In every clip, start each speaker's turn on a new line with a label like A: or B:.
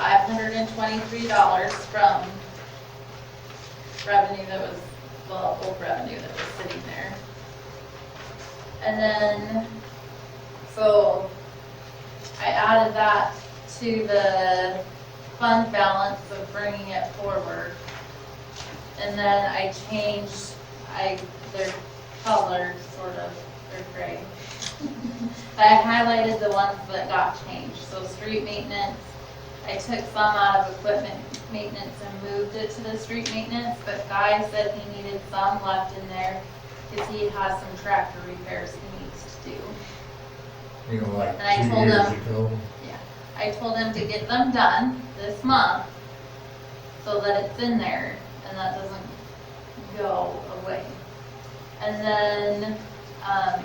A: hundred and twenty-three dollars from revenue that was, well, old revenue that was sitting there. And then, so I added that to the fund balance of bringing it forward. And then I changed, I, their color, sort of, they're gray. I highlighted the ones that got changed, so street maintenance, I took some out of equipment maintenance and moved it to the street maintenance, but Guy said he needed some left in there, cause he has some tractor repairs he needs to do.
B: you know, like
A: And I
B: two
A: told
B: years
A: them-
B: ago.
A: I told him to get them done this month so that it's in there and that doesn't go away. And then, um,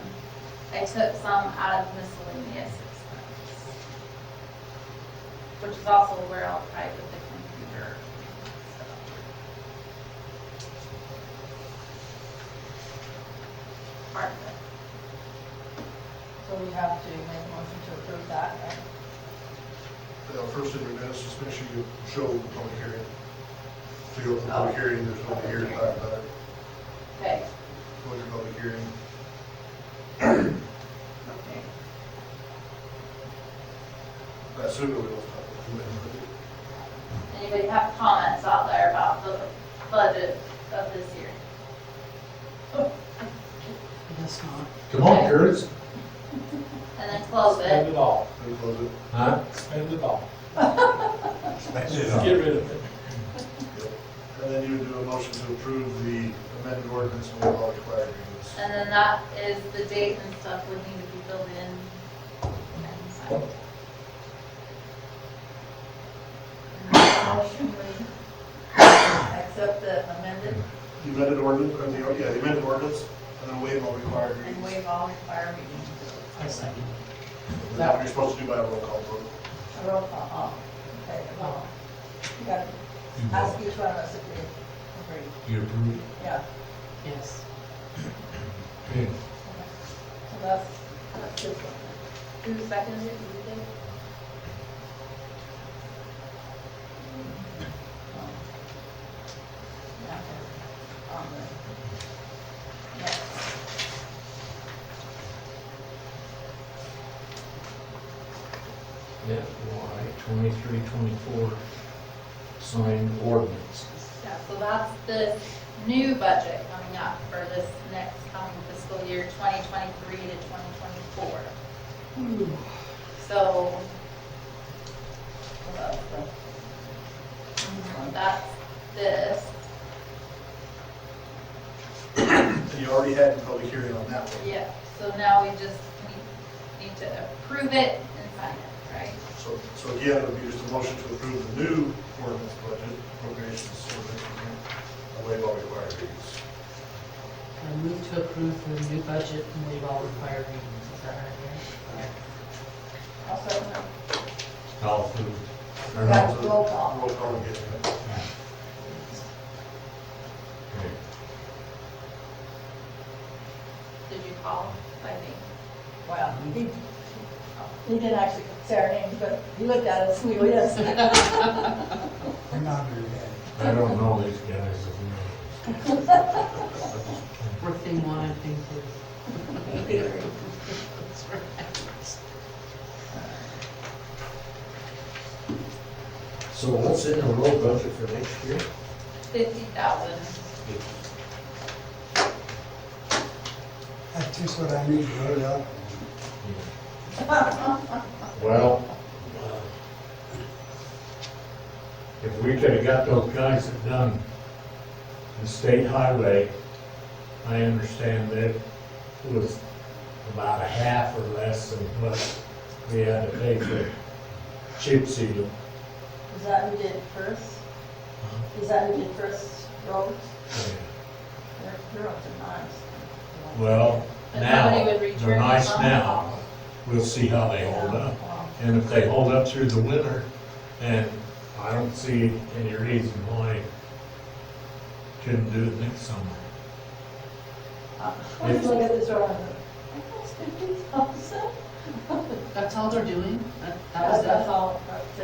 A: I took some out of miscellaneous expenses. Which is also where I'll try with the computer. stuff. Part of it.
C: So we have to make a motion to approve that, right?
D: Now, first thing we notice is make sure you show the public hearing. So you open the
A: Oh.
D: public hearing, there's no hearing about that,
A: Okay.
D: go to public hearing.
C: Okay.
D: I assume we will talk
A: Anybody have comments out there about the budget of this year?
E: That's not.
B: Come on, Curtis.
A: And then close
F: Spend
A: it.
F: it all,
D: about it. We close it.
B: Huh?
F: spend it all. Just get
B: That's
F: rid of it.
D: And then you would do a motion to approve the amended ordinance and all the required agreements.
A: And then that is the date and stuff would need to be filled in. and signed.
C: Motion, we accept the amended
D: The amended ordinance, or the, yeah, the amended ordinance, and then waive all required
C: and
D: readings.
C: waive all required readings.
E: I second.
D: And That you're supposed to do by a roll call vote.
C: A Roll call, all. Okay, well, you gotta ask each one of us if we agree.
B: You approve?
C: Yeah,
E: Yes.
B: Okay.
C: so that's, that's this one.
A: Who seconded it? You did?
C: Yeah, Um, on the next.
B: FY twenty-three, twenty-four signed ordinance.
A: Yeah, so that's the new budget coming up for this next coming fiscal year, 2023 to 2024. So
C: Well, that's
A: that's this,
D: And you already had a public hearing on that one,
A: yeah. So now we just need- need to approve it and sign it, right?
D: so, so again, it would be just a motion to approve the new ordinance budget appropriations, so that you can waive all required readings.
E: I move to approve the new budget and waive all required readings. Is that right
C: the- Also,
B: All approved. Or not?
C: that's roll call.
D: Roll call again.
B: Okay.
A: Did you call by name?
C: Well, he, he didn't actually say our names, but he looked at us, and we went, yes.
B: I don't know these guys. if you know.
E: there? We're thing one and thing two. That's right.
B: So what's in the road budget for next year?
A: Fifty thousand.
G: That's just what I need to load up.
B: Well, uh, if we could've got those guys that done the state highway, I understand that was about a half or less than what we had to pay for chip seal.
C: Is that who did first? Is that who did first roads? Their, their roads are nice.
B: Well,
A: But nobody
B: now,
A: would
B: they're
A: return
B: nice
A: the phone
B: now.
A: call.
B: We'll see how they hold up.
C: Well,
B: And if they hold up through the winter, and I don't see any reason why couldn't do it next summer.
C: uh, Let's look at this road. That's fifty thousand.
E: That's all they're doing? That that was
C: That's
E: it?
C: all, that's it.